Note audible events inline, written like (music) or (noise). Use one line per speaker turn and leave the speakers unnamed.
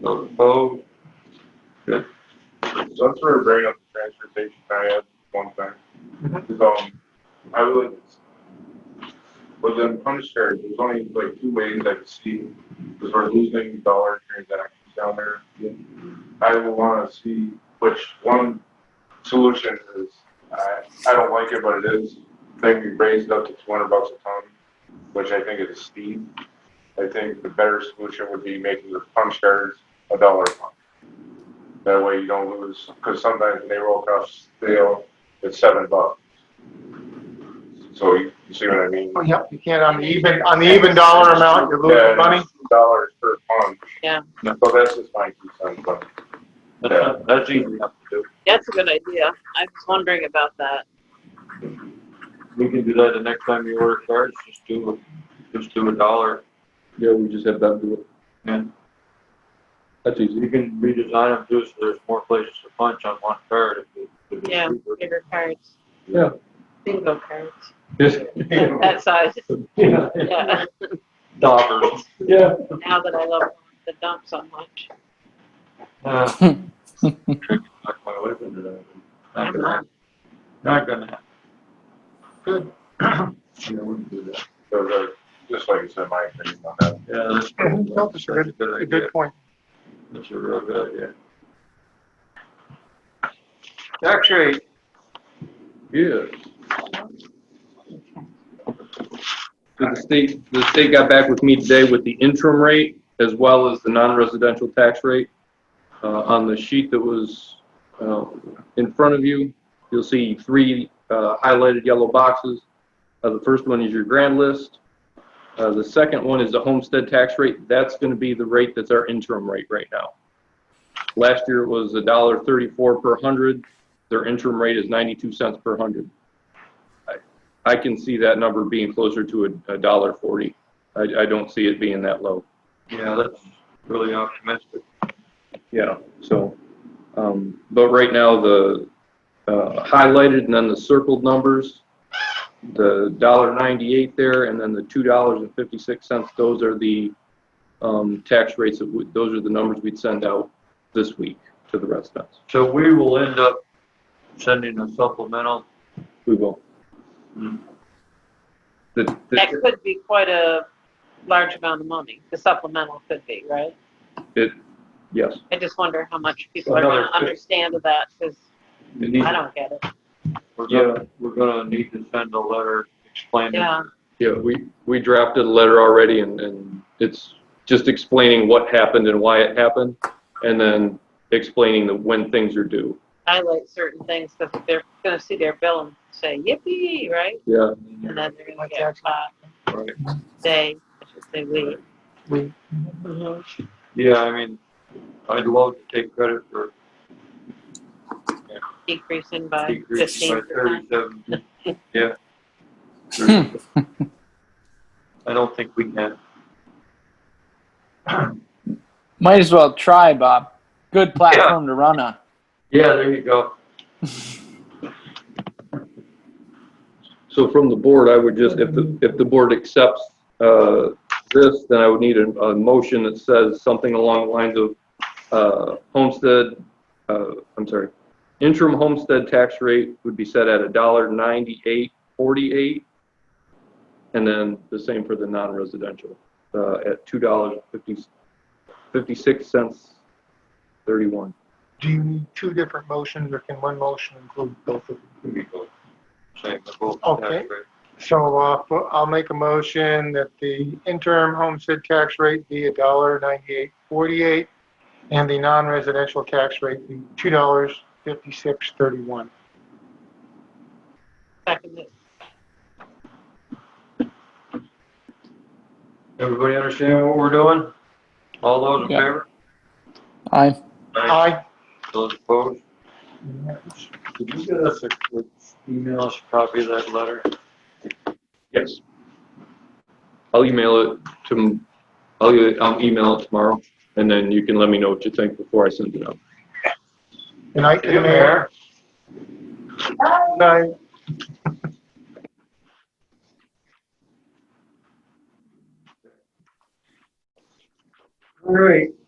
Those opposed?
Let's sort of bring up the transportation, I had one thing. Um, I would, but then punch cards, there's only like two ways I could see, because we're losing dollar transactions down there. I would wanna see which one solution is, I, I don't like it, but it is, I think we raised up to two hundred bucks a ton, which I think is steep. I think the better solution would be making the punch cards a dollar a month. That way you don't lose, because sometimes when they roll across the hill, it's seven bucks. So you, you see what I mean?
Oh, Yep, you can't on the even, on the even dollar amount, you're
Yeah,
losing
and it's
money.
two Dollars per punch.
Yeah.
So that's just my two cents, but
That's, that's easy enough to do.
That's a good idea. I was wondering about that.
We can do that the next time you order cards, just do, just do a dollar.
Yeah, we just have that do it.
Yeah.
That's easy.
You can redesign them too, so there's more places to punch on one card. if it- if it's
Yeah.
cheaper.
Bigger cards.
Yeah.
Bingo cards.
(laughs)
Yeah.
(laughs)
That size.
Yeah.
(laughs) Yeah.
Dollars.
Yeah.
Now that I love the dump so much.
Uh, (laughs) trick knocked my wife into that. Not gonna happen. Not gonna happen.
Yeah, we can do that.
so the- just like you said, my opinion on that.
Yeah, that's.
Mhm, no, that's a
that's a
good-
good
A
idea.
good point.
That's a real good idea.
Tax rate.
Yes. So The state, the state got back with me today with the interim rate as well as the non-residential tax rate. Uh, on the sheet that was, uh, in front of you, you'll see three, uh, highlighted yellow boxes. Uh, the first one is your grand list. Uh, the second one is the homestead tax rate. That's gonna be the rate that's our interim rate right now. Last year it was a dollar thirty-four per hundred. Their interim rate is 92 cents per hundred. I- I can see that number being closer to a a dollar 40. I, I don't see it being that low.
Yeah, that's really optimistic.
Yeah. So, um, but right now, the uh, highlighted and then the circled numbers, the dollar 98 there and then the $2.56, those are the um, tax rates, that would- those are the numbers we'd send out this week to the residents.
So we will end up sending a supplemental.
We will.
Hmm.
The- the-
That could be quite a large amount of money. The supplemental could be, right?
Yes.
I just wonder how much people are gonna
Another fif-
understand of that, because
It needs-
I don't get it.
We're gonna, we're gonna need to send a letter explaining.
Yeah.
Yeah, we, we drafted a letter already and, and it's just explaining what happened and why it happened. And then explaining the, when things are due.
Highlight certain things, because they're gonna see their bill and say yippee, right?
Yeah,
And then they're gonna
Like
get,
tax.
uh,
Right.
they, I should say we.
We-
Mhm.
Yeah, I mean, I'd love to take credit for
decreasing by
decreasing
Uh, fifteen
by
percent.
thirty-seven,
(laughs)
yeah. I don't think we can.
Might as well try, Bob. Good platform to run on.
Yeah, there you go.
so from the board, I would just, if the, if the board accepts, uh, this, then I would need a, a motion that says something along the lines of, uh, homestead, uh, I'm sorry, interim homestead tax rate would be set at a dollar ninety-eight forty-eight. And then the same for the non-residential, uh, at two dollars fifty, fifty-six cents thirty-one.
Do you need two different motions or can one motion include both of them?
Same, the vote
Okay. So, uh, fo- I'll make a motion that the interim homestead tax rate be a dollar ninety-eight forty-eight and the non-residential tax rate be two dollars fifty-six thirty-one.
Second it.
Everybody understand what we're doing? All those in
Yeah.
favor?
I
Aye.
Those opposed? Could you get us a, could email us a copy of that letter?
Yes. I'll email it to, I'll, e- I'll email it tomorrow, and then you can let me know what you think before I send it out.
Good night, to the mayor. Good Night.
All right,